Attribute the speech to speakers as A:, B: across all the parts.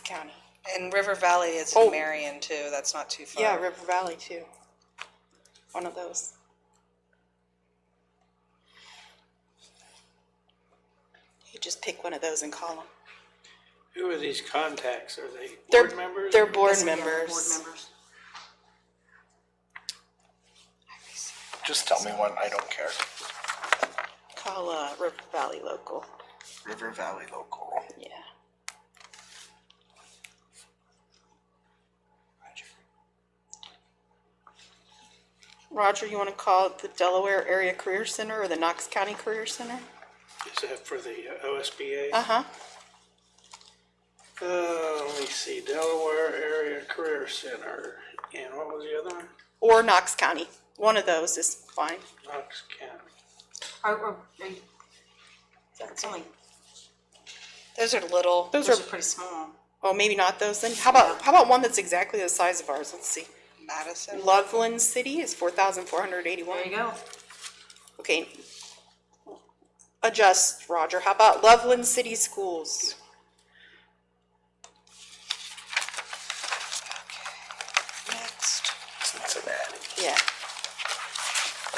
A: county.
B: And River Valley is
A: Oh.
B: in Marion too. That's not too far.
A: Yeah, River Valley too. One of those. You just pick one of those and call them.
C: Who are these contacts? Are they
A: They're,
C: board members?
A: they're board
D: Yeah, Board
A: members.
D: members.
E: Just tell me when, I don't care.
A: Call, uh, River Valley local,
E: River Valley Local.
A: yeah. Roger, you wanna call it the Delaware Area Career Center or the Knox County Career Center?
C: Is that for the uh, OSBA?
A: Uh-huh,
C: Uh, let me see, Delaware Area Career Center, and what was the other one?
A: or Knox County, one of those is fine.
C: Knox County.
D: Are, are, are you, that's only,
B: Those are little.
A: Those are,
D: those are pretty small.
A: oh, maybe not those then, how about, how about one that's exactly the size of ours, let's see.
B: Madison.
A: Loveland City is four thousand four hundred eighty-one.
D: There you go.
A: Okay. Adjust, Roger. How about Loveland City Schools?
B: Next.
E: Cincinnati.
A: Yeah,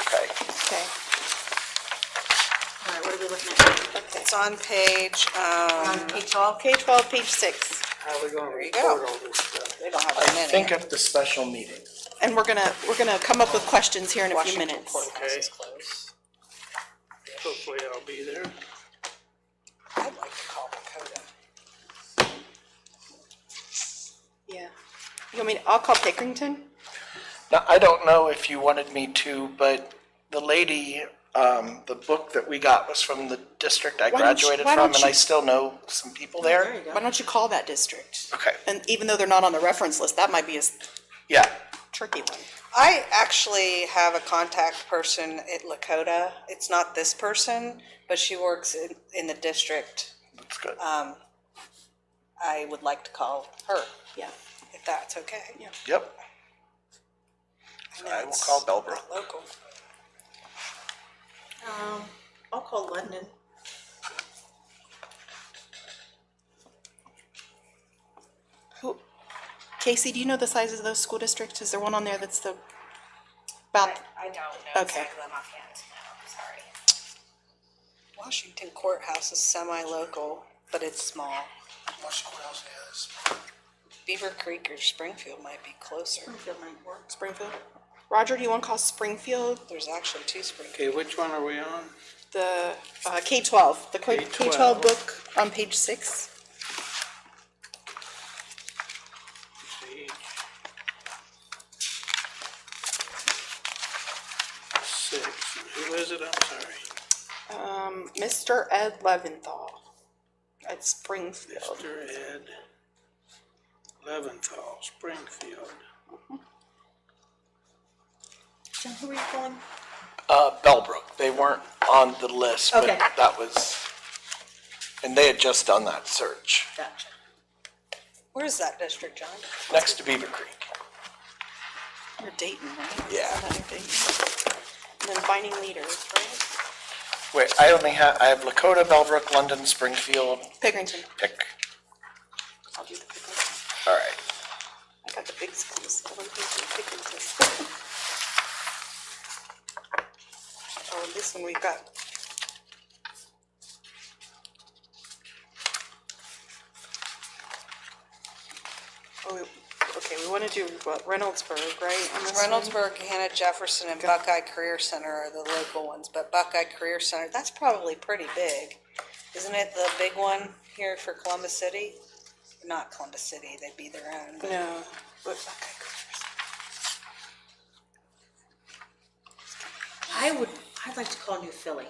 E: Okay.
A: okay,
D: All right, what are we looking at?
A: okay.
B: It's on page. Um,
D: On page twelve?
A: K twelve, page six,
C: How are we gonna
B: you go.
C: report all this stuff?
B: they don't have
E: I
B: that many.
E: think at the special meeting.
A: and we're gonna, we're gonna come up with questions here in a few
B: Washington
A: minutes.
B: Courthouse is
C: Okay.
B: closed.
C: Hopefully I'll be there.
B: I'd like to call Dakota.
A: Yeah. You want me, to- I'll call Pickerington?
E: Now, I don't know if you wanted me to, but the lady, um, the book that we got was from the district I
A: Why don't you-
E: graduated
A: why
E: from,
A: don't
E: and I
A: you-
E: still know some people there.
A: Why don't you call that district?
E: Okay,
A: And even though they're not on the reference list, that might be a s-
E: yeah,
A: tricky one.
B: I actually have a contact person at Lakota. It's not this person, but she works in, in the district.
E: that's good.
A: Uh,
B: I would like to call her,
A: Yeah.
B: if that's okay.
A: Yeah.
E: Yep.
B: know
E: I will
B: it's
E: call Bellbrook.
B: not Local.
D: Um, I'll call London.
A: Who, Casey, do you know the sizes of those school districts? Is there one on there that's the, about,
F: I don't know
A: Okay.
F: exactly them offhand, no, I'm sorry.
B: Washington Courthouse is semi-local, but it's small.
E: Washington House is.
B: Beaver Creek or Springfield might be closer.
D: Springfield might work.
A: Springfield? Roger, do you wanna call Springfield?
B: There's actually two Springfield.
C: Okay, which one are we on?
A: the uh, K twelve, the K twelve
C: K-12.
A: book on page six.
C: Page Six, who is it? I'm sorry.
A: Um, Mr. Ed Leventhal at Springfield.
C: Mr. Ed Leventhal, Springfield.
D: Jim, who are you calling?
E: Uh, Bellbrook, they weren't on the list, but
D: Okay.
E: that was, and they had just done that search,
D: Gotcha.
B: Where is that district, John?
E: next to Beaver Creek.
A: You're Dayton, right?
E: Yeah.
A: Isn't that your Dayton? And then finding leaders, right?
E: Wait, I only have, I have Lakota, Bellbrook, London, Springfield,
A: Pickerington.
E: pick.
A: I'll do the Pickerington.
E: All right.
A: I got the big schools. I want to do the Pickerington. Oh, and this one we've got. Oh, we- okay, we want to do what Reynoldsburg, right? on this one?
B: Reynoldsburg, Hannah Jefferson, and Buckeye Career Center are the local ones, but Buckeye Career Center, that's probably pretty big. Isn't it the big one here for Columbus City? Not Columbus City, they'd be their own. but
A: No, but
B: Buckeye Career Center.
D: I would, I'd like to call New Philly.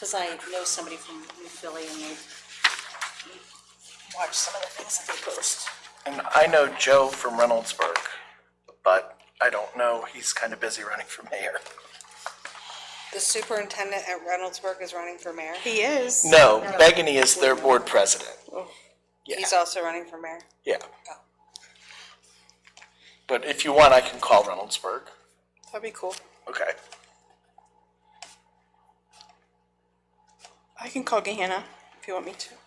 D: Cause I know somebody from New Philly and they watch some of the things that they post.
E: And I know Joe from Reynoldsburg, but I don't know, he's kind of busy running for mayor.
B: The superintendent at Reynoldsburg is running for mayor.
A: he is.
E: No, Begany is their board president,
B: He's also running for mayor.
E: yeah.
A: Oh.
E: But if you want, I can call Reynoldsburg.
A: That'd be cool.
E: Okay.
A: I can call Gehanna if you want me to.